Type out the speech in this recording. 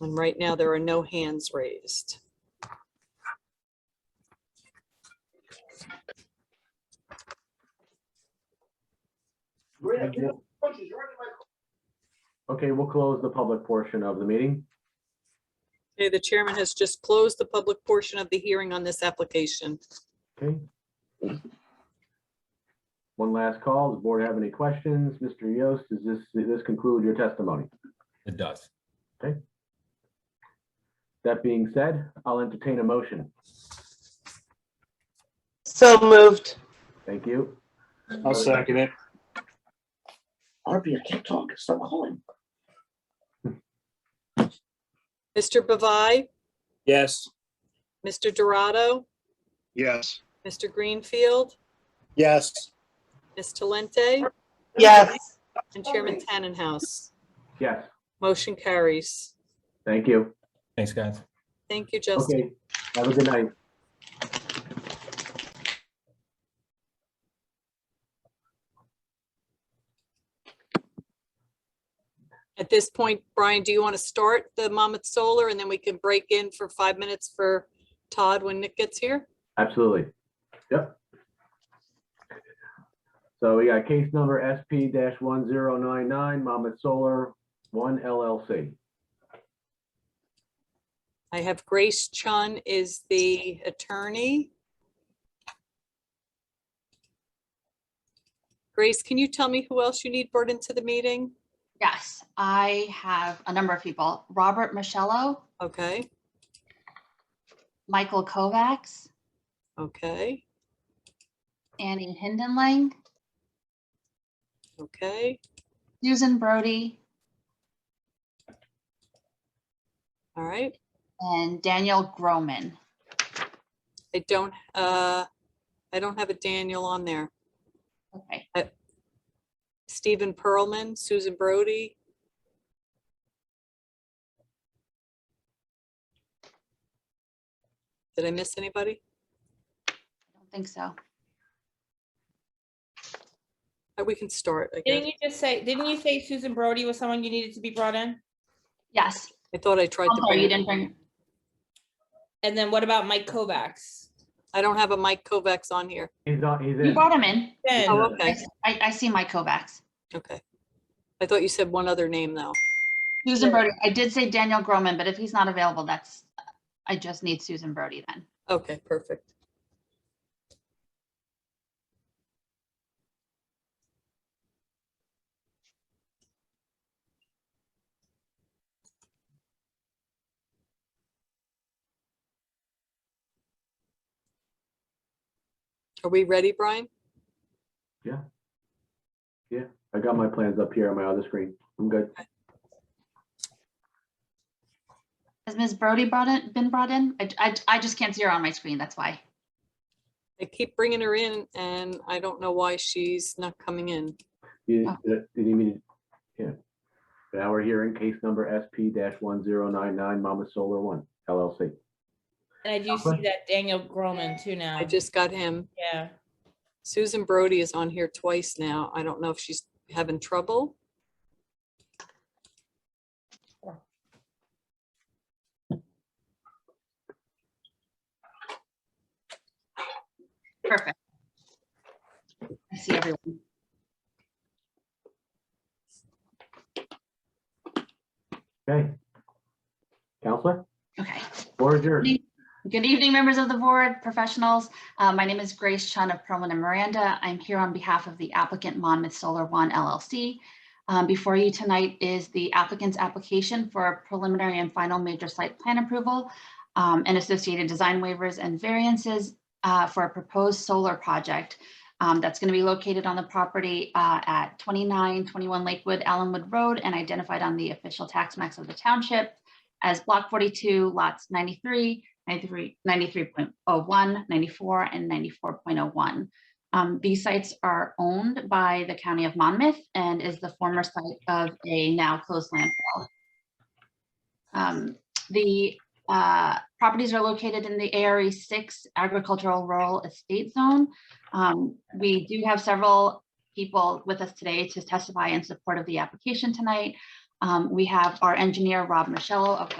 And right now, there are no hands raised. Okay, we'll close the public portion of the meeting. Okay, the chairman has just closed the public portion of the hearing on this application. Okay. One last call. Does the board have any questions? Mr. Yost, does this, does this conclude your testimony? It does. That being said, I'll entertain a motion. So moved. Thank you. I'll second it. Arby, I can't talk. Stop calling. Mr. Bavai, Yes. Mr. Dorado, Yes. Mr. Greenfield, Yes. Ms. Talente, Yes. and Chairman Tannenhouse. Yes, Motion carries. thank you. Thanks, guys. Thank you, Justin. Okay, have a good night. At this point, Brian, do you want to start the Monmouth Solar and then we can break in for five minutes for Todd when Nick gets here? Absolutely. Yep. So we got case number SP one zero nine nine, Monmouth Solar, one LLC. I have Grace Chun is the attorney. Grace, can you tell me who else you need brought into the meeting? Yes, I have a number of people. Robert Michello, Okay, Michael Kovacs, okay, Annie Hindenlang, okay. Susan Brody, All right. and Daniel Groman. I don't, uh, I don't have a Daniel on there. Okay, Stephen Pearlman, Susan Brody. Did I miss anybody? I don't think so. Uh, We can start, I Didn't guess. you just say, didn't you say Susan Brody was someone you needed to be brought in? Yes, I thought I tried I'm to sorry, you bring, didn't bring, And then what about Mike Kovacs? I don't have a Mike Kovacs on here. He's not, he's you in. brought him in. Then, Oh, Yeah. I, okay, I I see Mike Kovacs. okay. I thought you said one other name, though. Susan Brody, I did say Daniel Groman, but if he's not available, that's, I just need Susan Brody then. Okay, perfect. Are we ready, Brian? I got my plans up here on my other screen. I'm good. Has Ms. Brody brought in, been brought in? I, I, I just can't see her on my screen, that's why. I keep bringing her in and I don't know why she's not coming in. You, Oh. did you mean, yeah. Now we're hearing case number SP one zero nine nine, Mama Solar One LLC. and I do see that Daniel Groman too now. I just got him. Yeah. Susan Brody is on here twice now. I don't know if she's having trouble. Perfect. I see everyone. Okay. Counselor, Okay. board adjourned. Good evening, members of the board, professionals. Uh, My name is Grace Chun of Perlman and Miranda. I'm here on behalf of the applicant Monmouth Solar One LLC. Um, Before you tonight is the applicant's application for a preliminary and final major site plan approval um, and associated design waivers and variances uh, for a proposed solar project um, that's going to be located on the property uh, at 2921 Lakewood Allenwood Road and identified on the official tax max of the township as block 42 lots 93, 93, 93.01, 94, oh and 94.01. Um, These sites are owned by the County of Monmouth and is the former site of a now closed landfill. Um, The uh, properties are located in the ARE 6 Agricultural Rural Estate Zone. Um, We do have several people with us today to testify in support of the application tonight. Um, We have our engineer, Rob Michello of